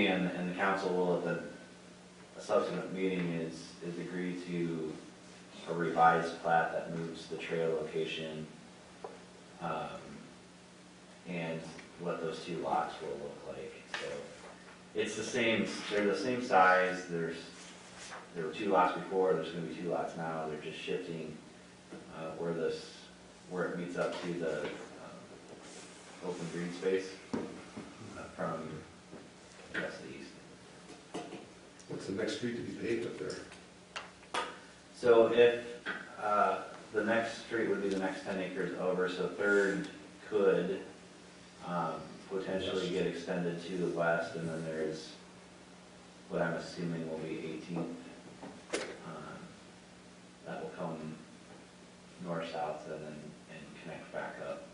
and, and the council will at the subsequent meeting is, is agree to a revised plat that moves the trail location. um, And what those two lots will look like, so. It's the same, they're the same size, there's, there were two lots before, there's gonna be two lots now, they're just shifting, uh, where this, where it meets up to the, um, open green space uh, from west to east. What's the next street to be paved up there? So if, uh, the next street would be the next ten acres over, so Third could, um, potentially get extended to the west, and then there's what I'm assuming will be Eighteenth. um, That will come north-south and then, and connect back up.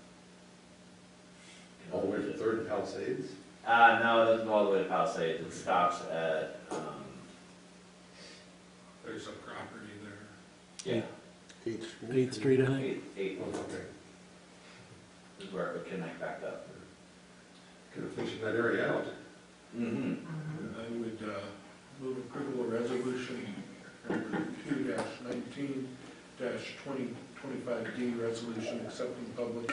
All the way from Third and Palisades? Uh, no, it doesn't go all the way to Palisades, it stops at, um, There's a property there. yeah, Eighth Street. Eighth Street, I think. eight, eight Oh, okay. is where it would connect back up. Could have finished that area out. Mm-hmm. I would uh, move approval of resolution number two nineteen twenty twenty-five D, resolution accepting public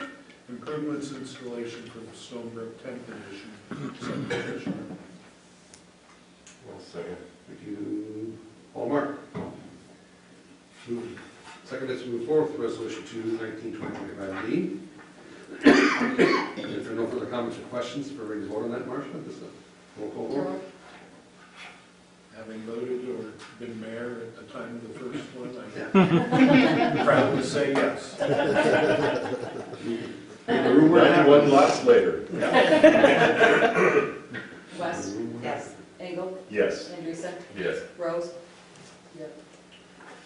improvements installation for the Stonebrook tenth edition subdivision. Well, second. Thank you, Hallmark. Move- Second, let's move forward with resolution two nineteen twenty twenty-five D. If there are no further comments or questions, for ready to vote on that, Marcia, this is a roll call vote. Having voted or been mayor at the time of the first one, Yeah. I'm proud to say yes. The room we're in- Ninety-one lots later, West, Mm-hmm. yes. Engel, yes. Andreessen, Yes. Rose. Yep.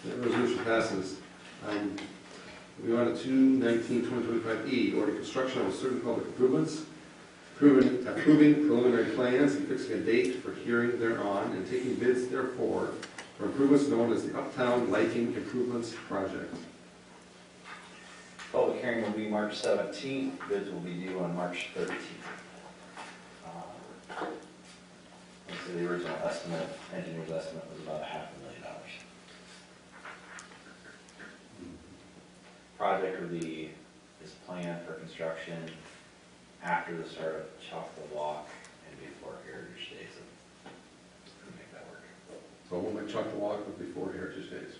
That resolution passes. Um, We are on to 19-2025E, E, order construction of certain public improvements, proven- approving preliminary plans and fixing a date for hearing thereon and taking bids therefore for improvements known as the Uptown Lighting Improvements Project. Public hearing will be March seventeenth, bids will be due on March thirteenth. So the original estimate, engineer's estimate was about a half a million dollars. Project would be, is planned for construction after the start of Choctaw Walk and before Heritage Days. We'll Make that work. So we'll make Chuck walk with before Heritage Days.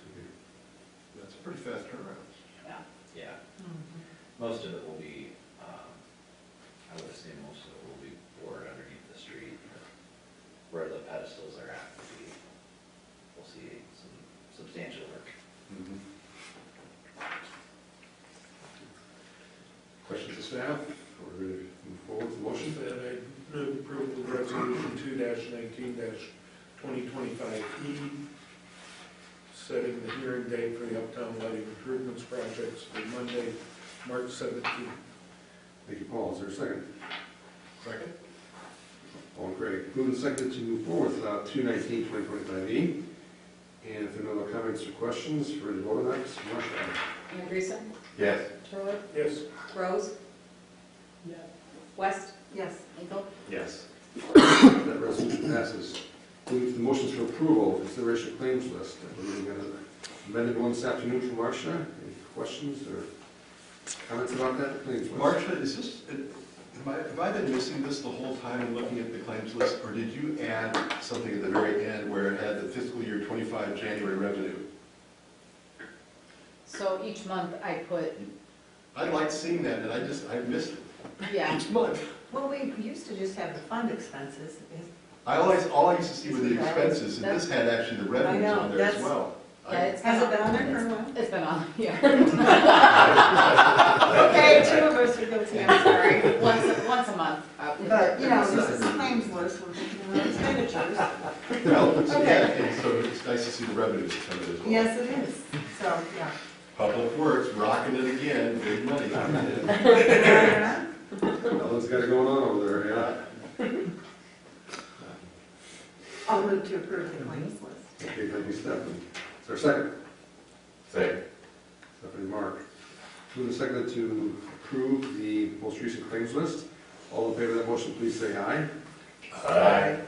That's a pretty fast turnaround. Yeah. Most of it will be, um, I would say most of it will be bored underneath the street, where the pedestals are at, will be- we'll see some substantial work. Questions to staff? Or move forward with the motion? And I move approval of resolution two nineteen twenty twenty-five E, setting the hearing date for the Uptown Lighting Improvements Projects for Monday, March seventeenth. Thank you, Paul. Is there a second? Second? All great. Moving second to move forward with uh, 219, 2025E. E. And if there are no other comments or questions, ready to vote on that, Mr. Marshall? Andreessen, Yes. Turler, Yes. Rose. West. Yes. Engel, Yes. That resolution passes. Moving to the motions for approval, consideration of claims list. I believe we got an amended one this afternoon from Marcia. Any questions or comments about that claims list? Marcia, is this, have I, have I been missing this the whole time in looking at the claims list? Or did you add something at the very end where it had the fiscal year 25 January revenue? So each month I put, I liked seeing that, and I just, I missed it yeah, each month. Well, we used to just have the fund expenses. Is- I always, all I used to see were the expenses, and this had actually the revenues I know, on there as that's- well. I- yeah, it's. Has it been on there for a while? It's been on, yeah, Okay, two of us are guilty, I'm sorry. once, once a month. uh, But, you know, this is a claims list, we're taking our expenditures. Well, it's- Okay. yeah, and so it's nice to see the revenues come in as well. Yes, it is, so, yeah. Public Works rocking it again, big money coming in. Ellen's got it going on over there, yeah. I'll move to approve the claims list. Okay, thank you, Stephanie. Is there a second? Second. Stephanie Mark. Moving second to approve the most recent claims list. All in favor of that motion, please say aye. Aye.